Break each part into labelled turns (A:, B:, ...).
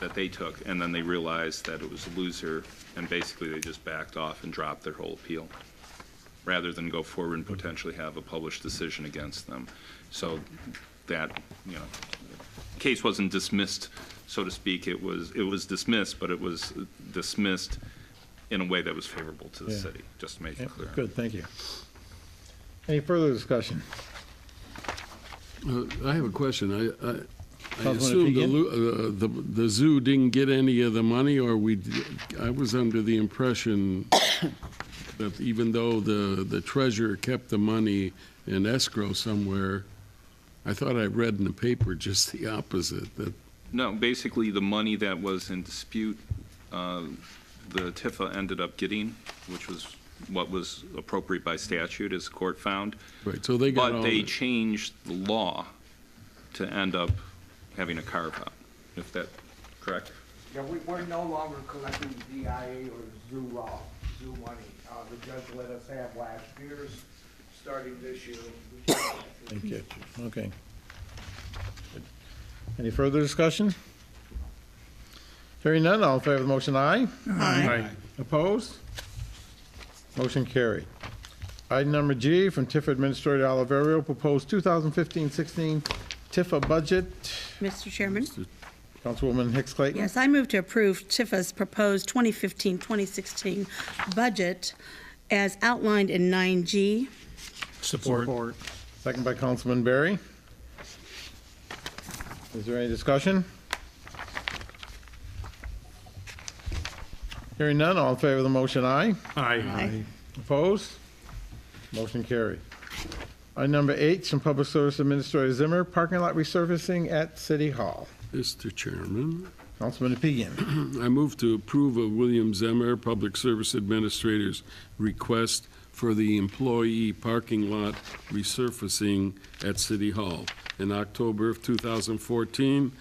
A: that they took, and then they realized that it was a loser, and basically they just backed off and dropped their whole appeal, rather than go forward and potentially have a published decision against them. So that, you know, the case wasn't dismissed, so to speak, it was, it was dismissed, but it was dismissed in a way that was favorable to the
B: Yeah.
A: city, just to make it
B: Yep,
A: clear.
B: Good, thank you. Any further discussion?
C: Uh, I have a question. I- I, I
B: Councilman
C: assume the
B: Fegan?
C: lo- uh, the, the zoo didn't get any of the money, or we, d- I was under the impression that even though the, the treasurer kept the money in escrow somewhere, I thought I read in the paper just the opposite, that,
A: No, basically, the money that was in dispute, uh, the Tifa ended up getting, which was what was appropriate by statute, as the court found.
C: right, so they got all
A: But they
C: the
A: changed the law to end up having a carve-out, if that, correct?
D: Yeah, we, we're no longer collecting DIA or zoo raw, zoo money. Uh, the judge let us have last year's, starting this year. we can't collect it.
B: Thank you. Okay. Any further discussion? Hearing none, all in favor of the motion, aye? Aye. Opposed? Motion carried. Item number G from TIF Administrator Oliverio, proposed 2015-16 TIFA budget.
E: Mr. Chairman?
B: Councilwoman Hicks Clayton?
E: Yes, I move to approve Tifa's proposed 2015-2016 budget as outlined in 9G.
B: Support. Second by Councilman Berry. Is there any discussion? Hearing none, all in favor of the motion, aye.
E: Aye.
B: Opposed? Motion carried. Item number eight, from Public Service Administrator Zimmer, parking lot resurfacing at City Hall.
C: Mr. Chairman.
B: Councilman Apigian.
C: I move to approve of William Zemmer, Public Service Administrator's request for the employee parking lot resurfacing at City Hall. In October of 2014,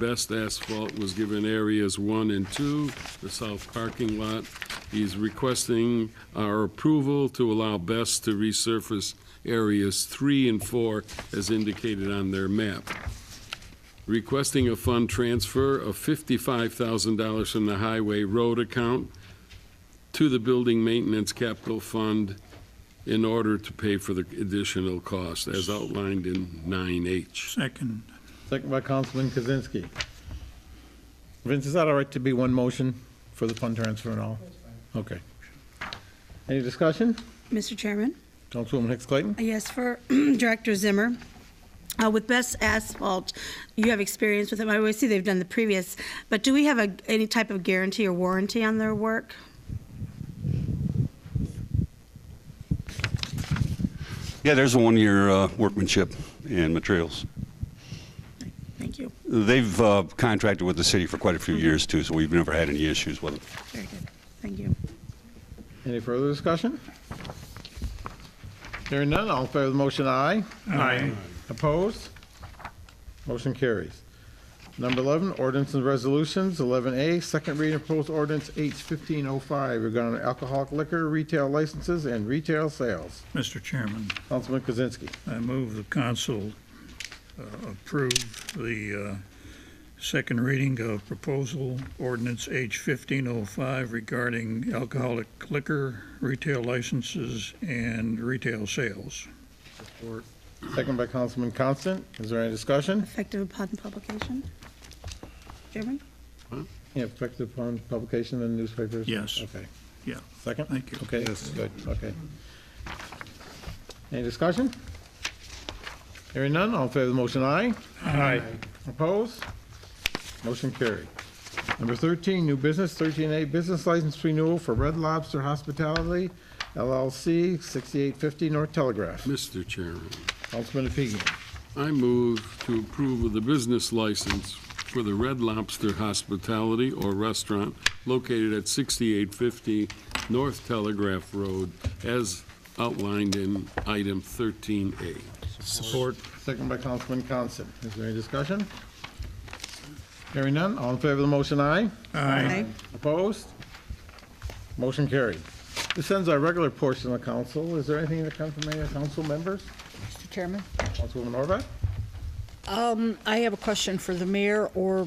C: best asphalt was given areas one and two, the south parking lot. He's requesting our approval to allow best to resurface areas three and four as indicated on their map requesting a fund transfer of $55,000 from the highway road account to the building maintenance capital fund in order to pay for the additional cost, as outlined in 9H.
F: Second.
B: Second by Councilman Kozinski. Vince, is that all right to be one motion for the fund transfer and all? Okay. Any discussion?
E: Mr. Chairman?
B: Councilwoman Hicks Clayton?
E: Uh, Yes, for Director Zimmer. Uh, With Best Asphalt, you have experience with them. I always see they've done the previous, but do we have a- any type of guarantee or warranty on their work?
G: Yeah, there's a one-year uh, workmanship and materials.
E: Thank you.
G: They've uh, contracted with the city for quite a few years too, so we've never had any issues with them.
E: Very good. Thank you.
B: Any further discussion? Hearing none, all in favor of the motion, aye.
F: Aye.
B: Opposed? Motion carries. Number 11, ordinance and resolutions, 11A, second reading of proposed ordinance H1505 regarding alcoholic liquor retail licenses and retail sales.
F: Mr. Chairman,
B: Councilman Kozinski.
F: I move the council uh, approve the uh, second reading of proposal ordinance H 1505 regarding alcoholic liquor retail licenses and retail sales.
B: Second by Councilman Constant. Is there any discussion?
E: Effective upon publication. Chairman?
B: Yeah, effective upon publication in the newspapers?
F: Yes.
B: Okay.
F: Yeah.
B: Second?
F: Thank you.
B: Okay, good, okay. Any discussion? Hearing none, all in favor of the motion, aye.
F: Aye.
B: Opposed? Motion carried. Number 13, new business, 13A, business license renewal for Red Lobster Hospitality LLC, 6850 North Telegraph.
C: Mr. Chairman,
B: Councilman Apigian.
C: I move to approve of the business license for the Red Lobster Hospitality or Restaurant located at 6850 North Telegraph Road, as outlined in item 13A.
B: Support. Second by Councilman Constant. Is there any discussion? Hearing none, all in favor of the motion, aye.
E: Aye.
B: Opposed? Motion carried. This ends our regular portion of the council. Is there anything that comes from any of the council members?
H: Mr. Chairman?
B: Councilwoman Horvath?
H: Um, I have a question for the mayor or